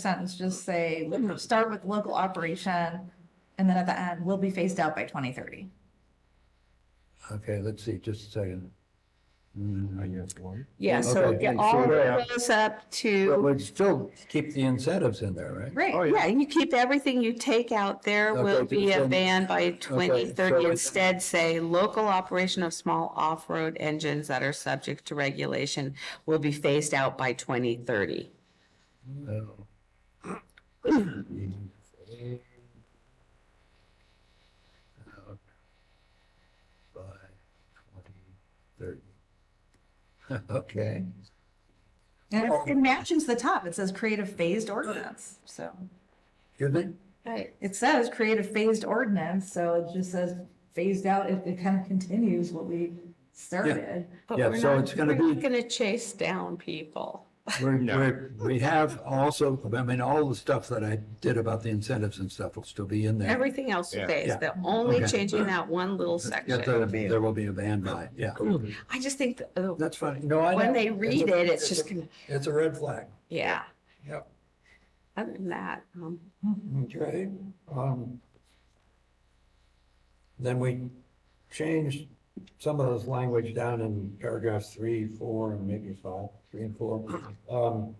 sentence just say, start with local operation, and then at the end, will be phased out by twenty thirty. Okay, let's see, just a second. Mm, Yeah, so Okay. yeah, all of Yeah. it goes up But to, we'd still keep the incentives in there, right? Right. yeah, you keep everything you take out, there Okay, will be a then- ban by okay, twenty so thirty. it's- Instead, say, local operation of small off-road engines that are subject to regulation will be phased out by twenty thirty. No. By twenty thirty. Okay, And it's- it matches the top. It says create a phased ordinance, so. excuse me? Right. It says create a phased ordinance, so it just says phased out. It, it kind of continues what we started. But Yeah, we're so not- it's gonna We're be- not gonna chase down people. We're, we're, we have also, I mean, all the stuff that I did about the incentives and stuff will still be in there. Everything else Yeah. stays. Yeah. They're only Okay. changing that one little Yeah, section. there- There will be a ban by, it, yeah, I just think, that, uh, that's fine, no, I know. when they read a- it, it's a- just gonna, It's a red flag, yeah. yep. Other than that, um, Okay, um. Then we changed some of this language down in paragraphs three, four, and maybe five, three and four. Um,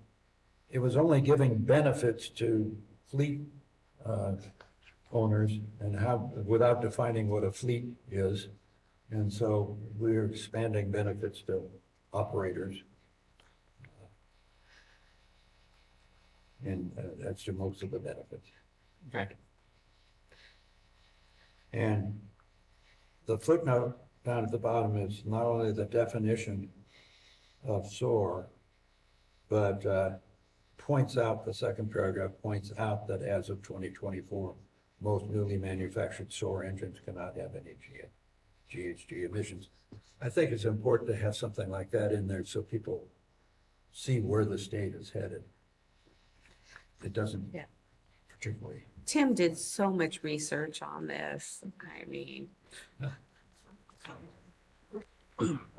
it was only giving benefits to fleet, uh, owners and how, without defining what a fleet is. And so we're expanding benefits to operators. And uh, that's to most of the benefits. Okay. And the footnote down at the bottom is not only the definition of SOAR, but uh, points out, the second paragraph points out that as of 2024, most newly manufactured SOAR engines cannot have any G- GHG emissions. I think it's important to have something like that in there so people see where the state is headed. It doesn't Yeah. particularly. Tim did so much research on this. I mean,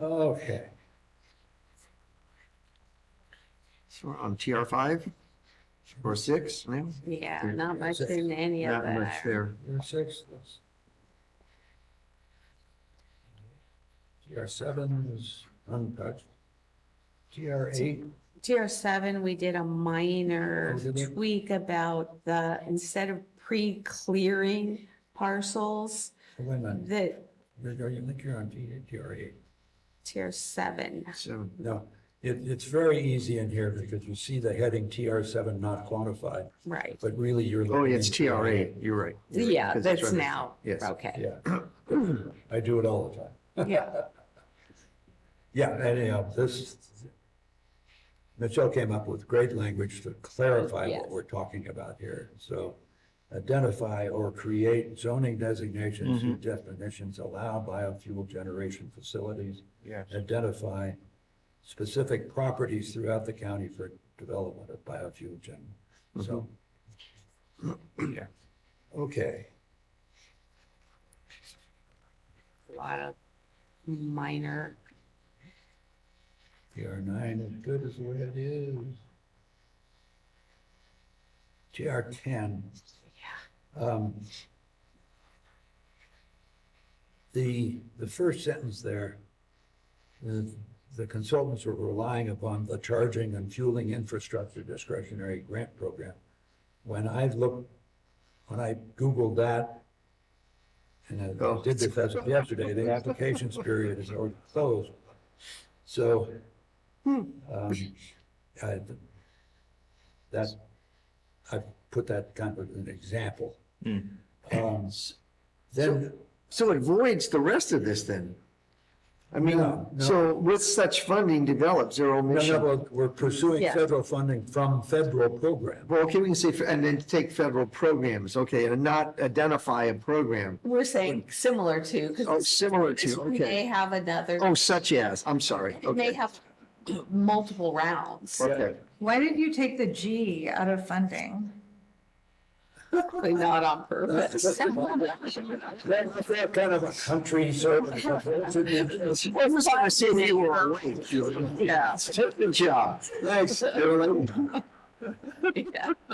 Okay. So we're on TR five or six now? yeah, Yeah, not much that's it. in any of Not much that. there. Your six is. TR seven is untouched. TR eight, TR seven, we did a minor Oh, did we? tweak about the, instead of pre-clearing parcels, wait a minute, the You're- you're- you think you're on T- TR eight? tier seven. Seven. No, it, it's very easy in here because you see the heading TR seven not quantified, Right, but really you're. Oh, looking yeah, it's at TR eight. You're right. You're right, yeah, 'cause that's right. now, Yes. okay, Yeah, I do it all the time. yeah, Yeah, anyhow, this, Michelle came up with great language to clarify Yes. what we're talking about here. So identify or create zoning designations and definitions allow biofuel generation facilities. Yes. Identify specific properties throughout the county for development of biofuel gen. So, Yeah. okay, a lot of minor. TR nine is good as the way it is. TR ten. Um, The, the first sentence there, the the consultants were relying upon the charging and fueling infrastructure discretionary grant program. When I looked, when I Googled that, and I Oh. did this as of yesterday, the applications period is already closed. So, um, I, that, I put that kind of an example. Um, Then, So it voids the rest of this then? I mean, No, no. so with such funding developed, zero no, no, emission. we're- we're pursuing Yeah. federal funding from federal program. Well, okay, we can say, fe- and then take federal programs, okay, and not identify a program. We're saying similar to, Oh, because similar to, we may okay. have another, Oh, such as, I'm sorry. we may Okay. have multiple rounds. Okay. Why did you take the G out of funding? Probably not on purpose. That, that kind of a country service. I was gonna say that you were awake. Julie. Yeah. Good job. Thanks, Julie. Yeah.